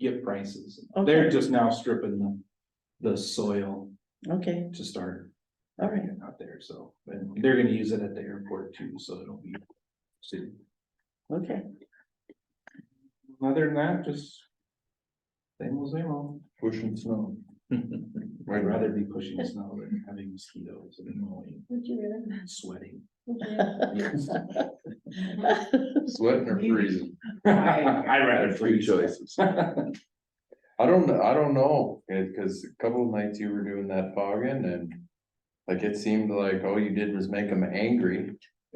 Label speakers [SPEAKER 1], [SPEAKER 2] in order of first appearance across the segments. [SPEAKER 1] get prices.
[SPEAKER 2] Okay.
[SPEAKER 1] They're just now stripping the, the soil
[SPEAKER 2] Okay,
[SPEAKER 1] to start
[SPEAKER 2] all right,
[SPEAKER 1] out there, so, and they're gonna use it at the airport too, so it'll be soon.
[SPEAKER 2] okay.
[SPEAKER 1] Other than that, just same old, same old.
[SPEAKER 3] Pushing snow.
[SPEAKER 1] I'd rather be pushing snow than having mosquitoes and mowing,
[SPEAKER 4] Would you really?
[SPEAKER 1] and sweating.
[SPEAKER 4] Would you really?
[SPEAKER 3] Sweating or freezing.
[SPEAKER 1] I'd rather
[SPEAKER 3] Three
[SPEAKER 1] freeze.
[SPEAKER 3] choices. I don't, know- I don't know, it, cause a couple of nights you were doing that fogging and. Like it seemed like all you did was make them angry,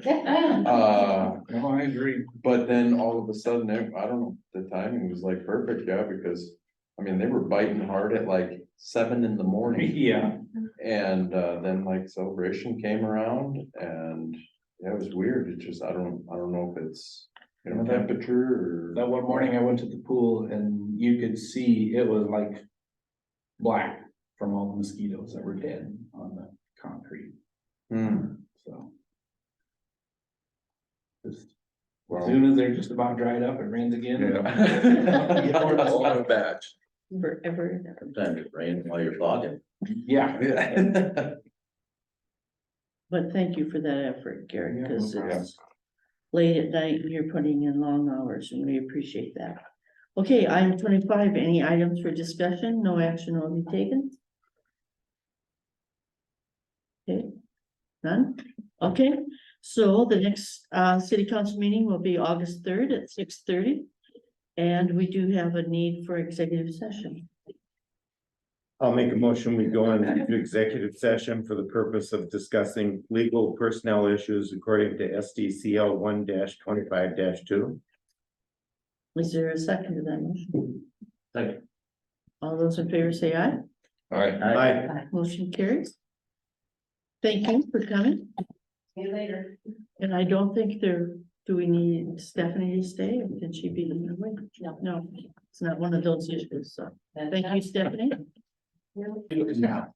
[SPEAKER 4] um,
[SPEAKER 3] uh,
[SPEAKER 1] No, I agree.
[SPEAKER 3] but then all of a sudden, ev- I don't know, the timing was like perfect, yeah, because. I mean, they were biting hard at like seven in the morning
[SPEAKER 1] Yeah,
[SPEAKER 3] and, uh, then like celebration came around and. Yeah, it was weird, it just, I don't, I don't know if it's, you know, temperature or,
[SPEAKER 1] that one morning I went to the pool and you could see it was like black from all the mosquitoes that were dead on the concrete,
[SPEAKER 3] Hmm,
[SPEAKER 1] so. As
[SPEAKER 3] well.
[SPEAKER 1] soon as they're just about dried up, it rains again.
[SPEAKER 3] Yeah.
[SPEAKER 5] batch.
[SPEAKER 2] Forever and ever.
[SPEAKER 5] Sometimes it rains while you're fogging.
[SPEAKER 1] Yeah,
[SPEAKER 3] Yeah.
[SPEAKER 2] But thank you for that effort, Gary,
[SPEAKER 1] Yeah, no
[SPEAKER 2] because
[SPEAKER 1] problem.
[SPEAKER 2] it's late at night and you're putting in long hours and we appreciate that. Okay, item twenty-five, any items for discussion? No action will be taken? Okay, none? Okay, so the next uh city council meeting will be August third at six thirty. And we do have a need for executive session.
[SPEAKER 6] I'll make a motion, we go into executive session for the purpose of discussing legal personnel issues according to SDCL one twenty-five two.
[SPEAKER 2] Is there a second to that motion?
[SPEAKER 5] Second.
[SPEAKER 2] All those in favor say aye.
[SPEAKER 3] All right.
[SPEAKER 6] Aye.
[SPEAKER 2] Motion carries. Thank you for coming,
[SPEAKER 4] See you later.
[SPEAKER 2] and I don't think there, do we need Stephanie to stay, or can she be in the way?
[SPEAKER 4] No.
[SPEAKER 2] No, it's not one of those issues, so, thank you, Stephanie.
[SPEAKER 3] Now.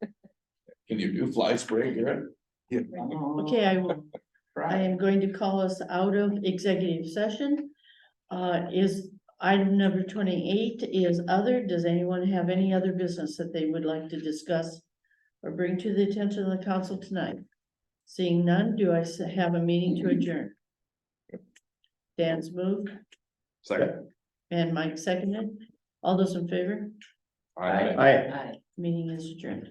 [SPEAKER 3] Can you do fly spray here?
[SPEAKER 2] Okay, I will, I am going to call us out of executive session. Uh, is item number twenty-eight is other, does anyone have any other business that they would like to discuss? Or bring to the attention of the council tonight? Seeing none, do I s- have a meeting to adjourn? Dan's moved
[SPEAKER 3] Second.
[SPEAKER 2] and Mike seconded, all those in favor,
[SPEAKER 3] All right.
[SPEAKER 6] Aye.
[SPEAKER 4] Aye.
[SPEAKER 2] meeting is adjourned.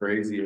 [SPEAKER 3] Crazy